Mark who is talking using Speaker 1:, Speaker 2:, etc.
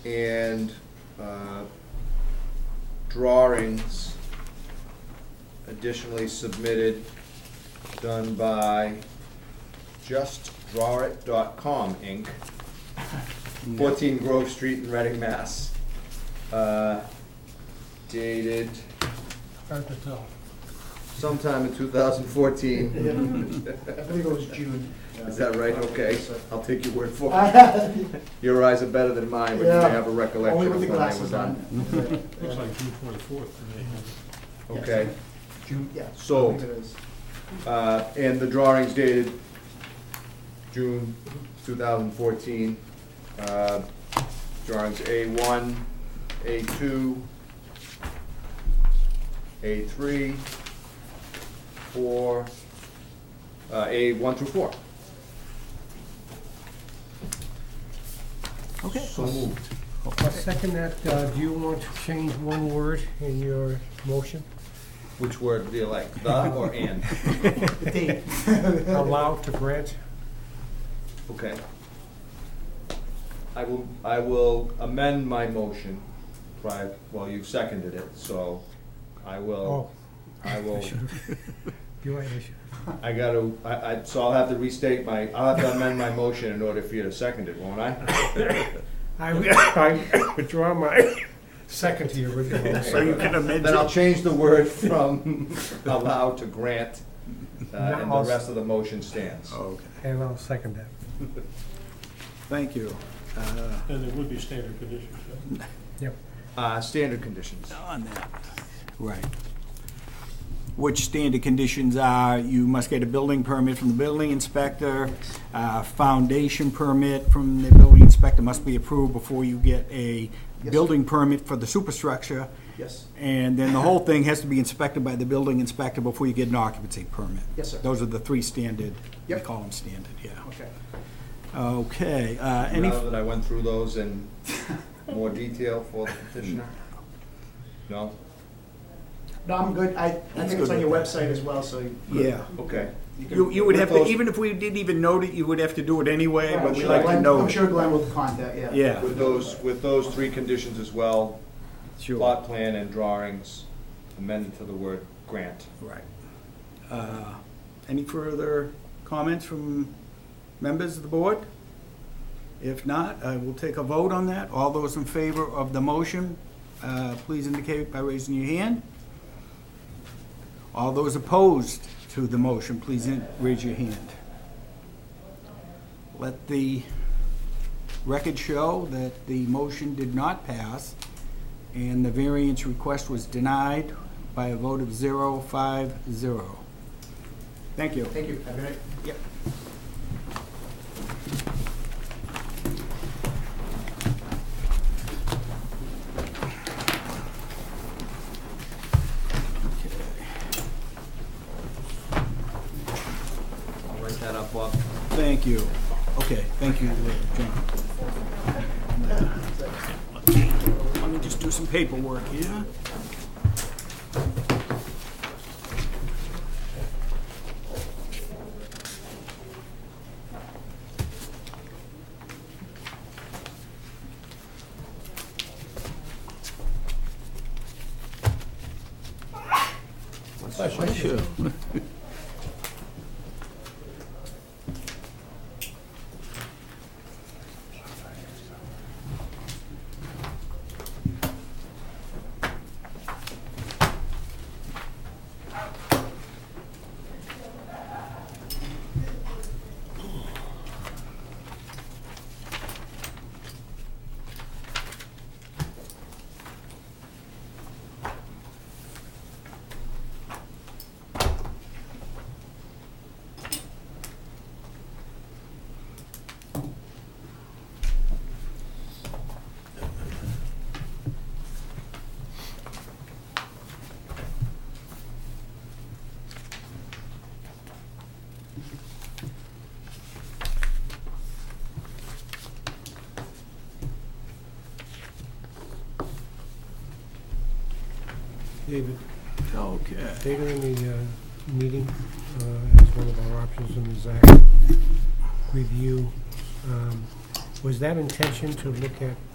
Speaker 1: and uh, drawings additionally submitted, done by justdrawit.com, Inc., 14 Grove Street in Reading, Mass. Uh, Dated
Speaker 2: Hard to tell.
Speaker 1: sometime in 2014.
Speaker 3: I believe it was June.
Speaker 1: Is that right? Okay, I'll take your word for it.
Speaker 3: Only
Speaker 1: Your eyes are better than mine, but you may
Speaker 3: Yeah.
Speaker 1: have a recollection of when
Speaker 3: with the
Speaker 1: they was
Speaker 3: glasses
Speaker 1: on.
Speaker 3: on.
Speaker 2: Looks like June twenty-fourth to me.
Speaker 1: Okay,
Speaker 3: June, yeah.
Speaker 1: So-
Speaker 3: I think it is.
Speaker 1: uh, and the drawings dated June two thousand fourteen. Uh, Drawings A one, A two, A three, four, uh, A one through four.
Speaker 4: Okay.
Speaker 1: So moved.
Speaker 2: I'll second that. Uh, Do you want to change one word in your motion?
Speaker 1: Which word do you like, the or and?
Speaker 3: The date.
Speaker 2: Allow to grant?
Speaker 1: Okay. I will, I will amend my motion prior, well, you've seconded it, so I
Speaker 2: Oh,
Speaker 1: will, I will,
Speaker 2: you are, I should-
Speaker 1: I gotta, I, I, so I'll have to restate my, I'll have to amend my motion in order for you to second it, won't I?
Speaker 2: I I withdraw my second to your original
Speaker 4: So
Speaker 2: motion.
Speaker 4: you can amend
Speaker 1: Then I'll
Speaker 4: it.
Speaker 1: change the word from allow to grant, uh, and the
Speaker 2: Now-
Speaker 1: rest of the motion stands.
Speaker 4: Okay,
Speaker 2: And I'll second that.
Speaker 4: thank you. Uh,
Speaker 5: And there would be standard conditions, yeah.
Speaker 2: Yep.
Speaker 1: Uh, standard conditions.
Speaker 4: On that, right. Which standard conditions are, you must get a building permit from the building inspector, uh, foundation permit from the building inspector must be approved before you get a
Speaker 3: Yes.
Speaker 4: building permit for the superstructure,
Speaker 3: Yes,
Speaker 4: and then the whole thing has to be inspected by the building inspector before you get an occupancy permit.
Speaker 3: Yes, sir.
Speaker 4: Those are the three standard, we
Speaker 3: Yep.
Speaker 4: call them standard, yeah.
Speaker 3: okay.
Speaker 4: Okay, uh, any,
Speaker 1: Now that I went through those in more detail for the petitioner? No?
Speaker 3: No, I'm good. I, I
Speaker 4: That's
Speaker 3: think it's
Speaker 4: good
Speaker 3: on your
Speaker 4: with
Speaker 3: website as well, so. you-
Speaker 4: yeah.
Speaker 1: Okay.
Speaker 3: you can-
Speaker 4: You, you would
Speaker 1: With
Speaker 4: have to,
Speaker 1: those-
Speaker 4: even if we didn't even note it, you would have to do it anyway,
Speaker 3: Yeah, I'm
Speaker 4: but we
Speaker 3: sure
Speaker 4: like to
Speaker 3: Glenn-
Speaker 4: know.
Speaker 3: I'm
Speaker 4: it.
Speaker 3: sure Glenn will contact, yeah.
Speaker 4: Yeah,
Speaker 1: With those, with those three conditions as well,
Speaker 4: sure,
Speaker 1: plot plan and drawings amended to the word grant.
Speaker 4: right. Uh, Any further comments from members of the board? If not, I will take a vote on that. All those in favor of the motion, uh, please indicate by raising your hand. All those opposed to the motion, please in- raise your hand. Let the record show that the motion did not pass, and the variance request was denied by a vote of zero, five, zero. Thank you.
Speaker 3: Thank you. Have a good night.
Speaker 4: Yep.
Speaker 1: I'll write that up, Bob.
Speaker 4: Thank you. Okay, thank you, uh, John. Let me just do some paperwork here.
Speaker 2: David,
Speaker 4: Okay.
Speaker 2: later in the uh, meeting, uh, as one of our options in the ZAC review, um, was that intention to look at